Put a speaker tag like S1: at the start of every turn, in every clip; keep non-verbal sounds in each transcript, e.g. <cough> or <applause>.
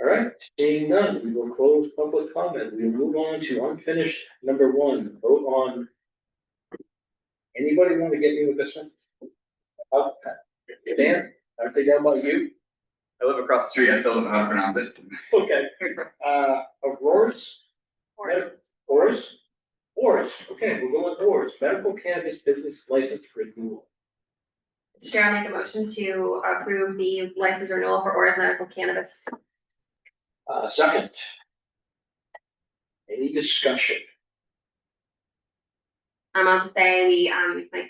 S1: All right, seeing none, we will close public comment. We will move on to unfinished number one, vote on. Anybody want to get me with this one? Uh, Dan, I think that about you.
S2: I live across the street, I still don't know how to pronounce it.
S1: Okay, uh, Aurora's, Med- Aurora's, Aurora's, okay, we'll go with Aurora's, medical cannabis business license renewal.
S3: Mr. Chair, I make a motion to approve the license renewal for Aura's Medical Cannabis.
S1: Uh, second. Any discussion?
S3: Um, I'll just say we, um, my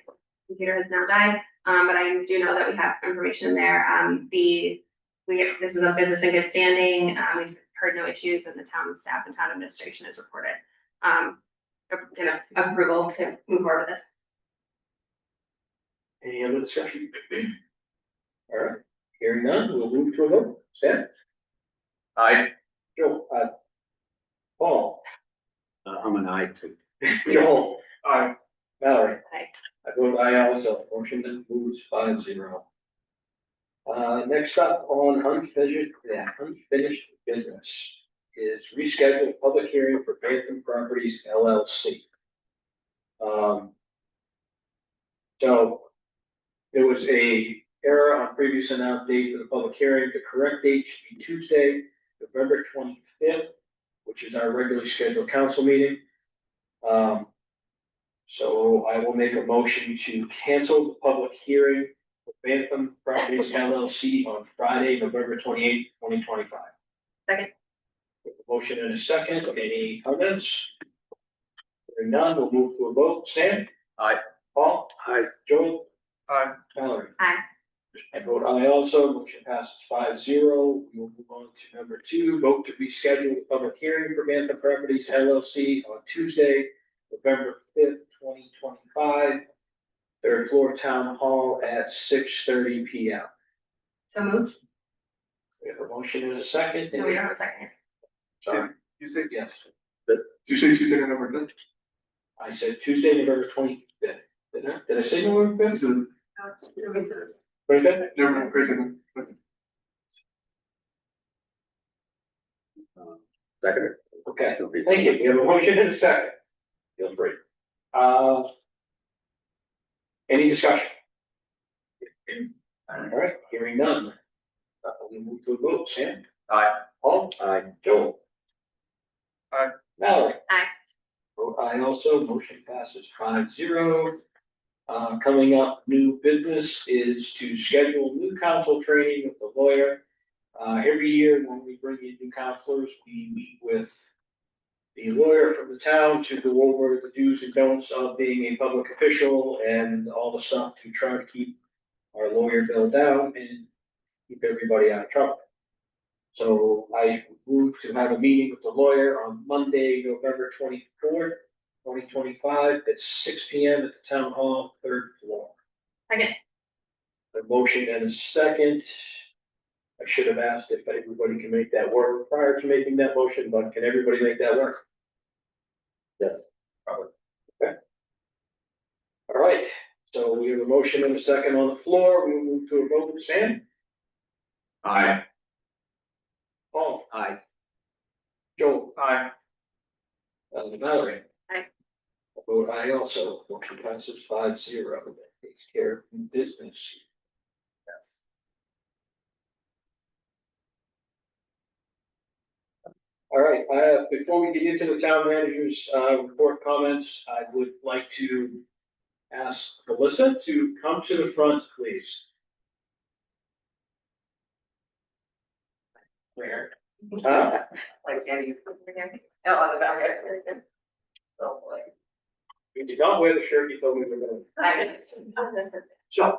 S3: computer has now died, um, but I do know that we have information there. Um, the, we, this is a business in good standing. Um, we've heard no issues and the town staff and town administration has reported, um, you know, approval to move forward with this.
S1: Any other discussion? All right, hearing none, we'll move to a vote. Sam?
S2: I,
S1: Joe, uh, Paul?
S4: Uh, I'm an I too.
S1: Joel? Aye. Mallory?
S3: Aye.
S1: I vote aye also. Motion then moves five zero. Uh, next up on unfinished, yeah, unfinished business is rescheduled public hearing for Grantham Properties LLC. Um. So there was a error on previous announced date for the public hearing. The correct date should be Tuesday, November twenty-fifth, which is our regularly scheduled council meeting. Um, so I will make a motion to cancel the public hearing for Bantham Properties LLC on Friday, November twenty-eighth, twenty twenty-five.
S3: Second.
S1: Motion and a second. Any comments? Hearing none, we'll move to a vote. Sam?
S2: Aye.
S1: Paul?
S4: I,
S1: Joel?
S2: Aye.
S1: Mallory?
S3: Aye.
S1: I vote aye also, motion passes five zero. We will move on to number two, vote to reschedule the public hearing for Bantham Properties LLC on Tuesday, November fifth, twenty twenty-five, third floor town hall at six thirty P M.
S3: So moved?
S1: We have a motion and a second.
S3: No, we don't have a second.
S1: Sorry,
S2: you say,
S1: yes,
S2: you say Tuesday, November fifth?
S1: I said Tuesday, November twenty-fifth. Did I, did I say November fifth?
S2: Tuesday,
S5: Oh,
S1: Twenty-fifth?
S2: November, crazy.
S4: uh, second.
S1: Okay, thank you. We have a motion and a second. Feel free. Uh, any discussion? All right, hearing none. Uh, we move to a vote. Sam?
S2: Aye.
S1: Paul?
S4: I,
S1: Joel?
S2: Aye.
S1: Mallory?
S3: Aye.
S1: Vote aye also. Motion passes five zero. Uh, coming up, new business is to schedule new council training with the lawyer. Uh, every year when we bring in new counselors, we meet with the lawyer from the town to go over the do's and don'ts of being a public official and all the stuff to try to keep our lawyer bill down and keep everybody out of trouble. So I moved to have a meeting with the lawyer on Monday, November twenty-fourth, twenty twenty-five, at six P M at the town hall, third floor.
S3: Second.
S1: A motion and a second. I should have asked if everybody can make that work prior to making that motion, but can everybody make that work?
S4: Yes.
S1: Probably. Okay. All right, so we have a motion and a second on the floor. We will move to a vote. Sam?
S2: Aye.
S1: Paul?
S4: I,
S1: Joel?
S2: Aye.
S1: Uh, Mallory?
S3: Aye.
S1: I Vote aye also, motion passes five zero, that takes care of new business.
S2: Yes.
S1: All right, uh, before we get into the town manager's, uh, report comments, I would like to ask Melissa to come to the front, please. Where? Huh?
S5: like any, oh, on the back. end. Oh, boy.
S1: You did not wear the shirt you told me you were gonna.
S5: I-
S3: <laughs>
S1: So.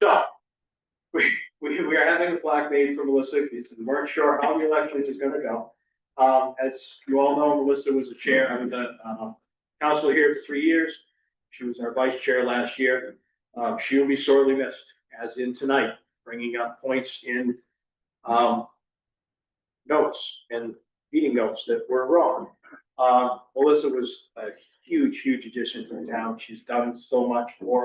S1: So. We, we, we are having a plaque made for Melissa, because we weren't sure how the election is gonna go. Um, as you all know, Melissa was the chair, I mean, the, uh, council here for three years. She was our vice chair last year. Um, she will be sorely missed, as in tonight, bringing up points in, um, notes and meeting notes that were wrong. Um, Uh, Melissa was a huge, huge addition to the town. She's done so much for